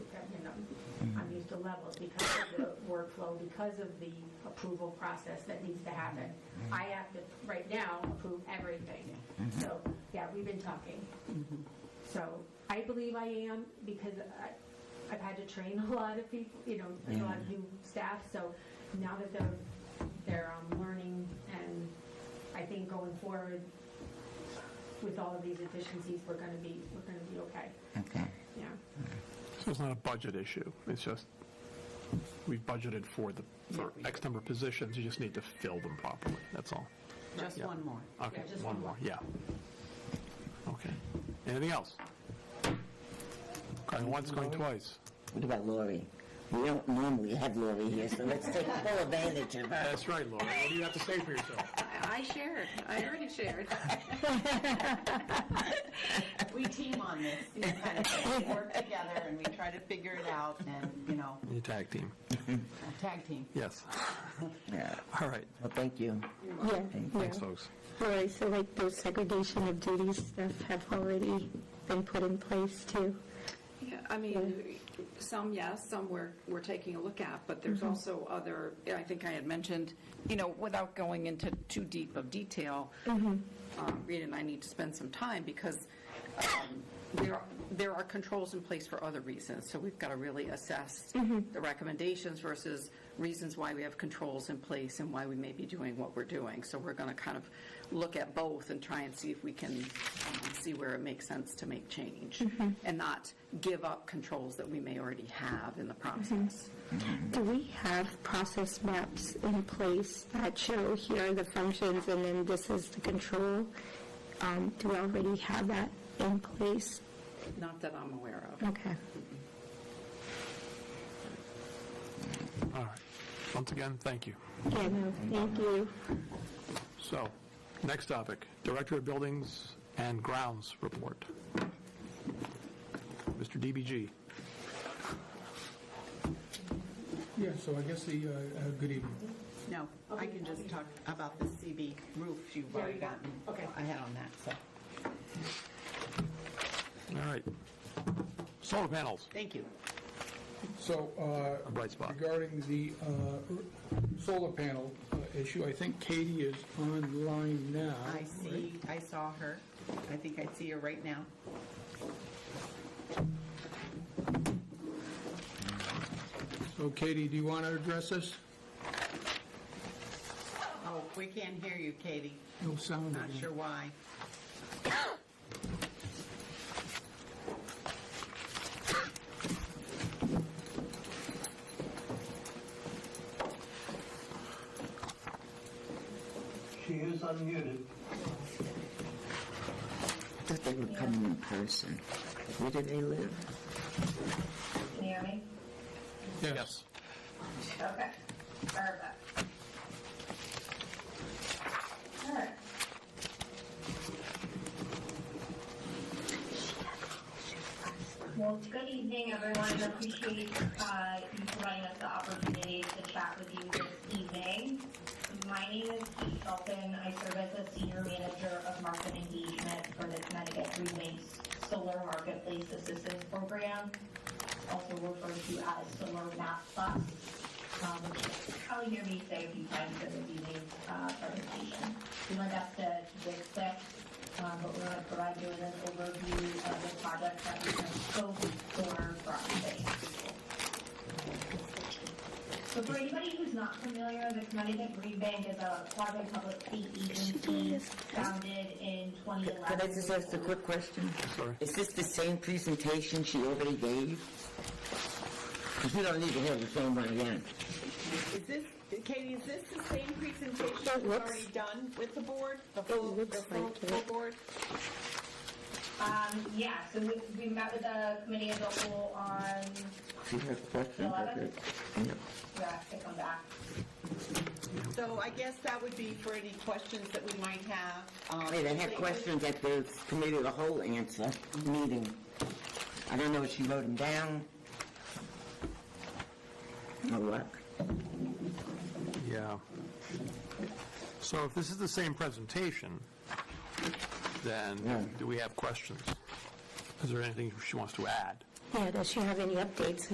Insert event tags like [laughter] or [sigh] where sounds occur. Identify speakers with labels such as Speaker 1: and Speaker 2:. Speaker 1: levels because of the workflow, because of the approval process that needs to happen. I have to, right now, approve everything. So, yeah, we've been talking. So I believe I am because I, I've had to train [laughs] a lot of people, you know, a lot of new staff. So now that they're, they're um, learning and I think going forward with all of these efficiencies, we're going to be, we're going to be okay.
Speaker 2: Okay.
Speaker 1: Yeah.
Speaker 3: So it's not a budget issue, it's just, we've budgeted for the, for X number of positions, you just need to fill them properly, that's all.
Speaker 4: Just
Speaker 3: Yeah.
Speaker 4: one more.
Speaker 3: Okay,
Speaker 1: just one
Speaker 3: one
Speaker 1: more.
Speaker 3: more, yeah. Okay, anything else? Going once, going twice.
Speaker 2: What about Lori? We don't normally have Lori here, so let's take full advantage of her.
Speaker 3: That's right, Laura, what do you have to say for yourself?
Speaker 4: I shared, I already shared. We team on this, you know, kind of, we work together and we try to figure it out and, you know,
Speaker 3: You tag team,
Speaker 4: tag team.
Speaker 3: yes,
Speaker 2: Yeah.
Speaker 3: all right,
Speaker 2: Well, thank you.
Speaker 5: Yeah,
Speaker 3: thanks,
Speaker 5: yeah.
Speaker 3: folks.
Speaker 5: All right, so like those segregation of duties stuff have already been put in place too.
Speaker 6: Yeah, I mean, some yes, some we're, we're taking a look at, but there's also other, I think I had mentioned, you know, without going into too deep of detail, um, Rita and I need to spend some time because um, there, are- there are controls in place for other reasons. So we've got to really assess the recommendations versus reasons why we have controls in place and why we may be doing what we're doing. So we're going to kind of look at both and try and see if we can um, see where it makes sense to make change and not give up controls that we may already have in the process.
Speaker 5: Do we have process maps in place that show here are the functions and then this is the control? Um, Do we already have that in place?
Speaker 6: Not that I'm aware of.
Speaker 5: Okay.
Speaker 3: All right, once again, thank you.
Speaker 5: Yeah, no, thank you.
Speaker 3: So, next topic, Director of Buildings and Grounds report. Mr. DBG.
Speaker 7: Yeah, so I guess the, uh, uh, good evening.
Speaker 4: No, I can just talk about the CB roof you've
Speaker 1: There
Speaker 4: already
Speaker 1: you go.
Speaker 4: gotten
Speaker 1: Okay.
Speaker 4: ahead on that, so,
Speaker 3: All right. Solar panels.
Speaker 4: thank you.
Speaker 7: So uh,
Speaker 3: A bright spot.
Speaker 7: regarding the uh, solar panel uh, issue, I think Katie is online now.
Speaker 4: I see, I saw her. I think I see her right now.
Speaker 7: So Katie, do you want to address this?
Speaker 4: Oh, we can't hear you, Katie.
Speaker 7: No sound.
Speaker 4: Not sure why.
Speaker 8: She is unmuted.
Speaker 2: I thought they were coming in person. Where do they live?
Speaker 9: Can you hear me?
Speaker 7: Yes.
Speaker 9: Okay. Perfect. All right. Well, good evening, everyone. I appreciate uh, you providing us the opportunity to chat with you this evening. My name is Kate Shelton. I serve as the Senior Manager of Market Engagement for the Connecticut Green Waste Solar Marketplace Assistance Program, also referred to as Solar Map Plus. Um, which you'll probably hear me say a few times in the evening's uh, presentation. We went up to this quick um, but we're going to provide you with an overview of the project that we have scoped for Broadway. So for anybody who's not familiar, the Connecticut Green Bank is a quasi-public state agency founded in 2011.
Speaker 2: Could I just ask a quick question?
Speaker 3: Sorry.
Speaker 2: Is this the same presentation she already gave? 'Cause we don't need to have the same one again.
Speaker 4: Is this, Katie, is this the same presentation
Speaker 5: It
Speaker 4: we've
Speaker 5: looks-
Speaker 4: already done with the board? The full, the
Speaker 5: looks
Speaker 4: full,
Speaker 5: like it.
Speaker 4: full board?
Speaker 9: Um, yeah, so we, we met with the committee as a whole on,
Speaker 2: She has questions. I could- yeah.
Speaker 9: we have to come back.
Speaker 4: So I guess that would be for any questions that we might have. um,
Speaker 2: Wait, I Oh, had questions at the committee of the whole answer meeting. I don't know if she wrote them down. No luck.
Speaker 3: Yeah. So if this is the same presentation,
Speaker 2: Yeah.
Speaker 3: then do we have questions? Is there anything she wants to add?
Speaker 5: Yeah, does she have any updates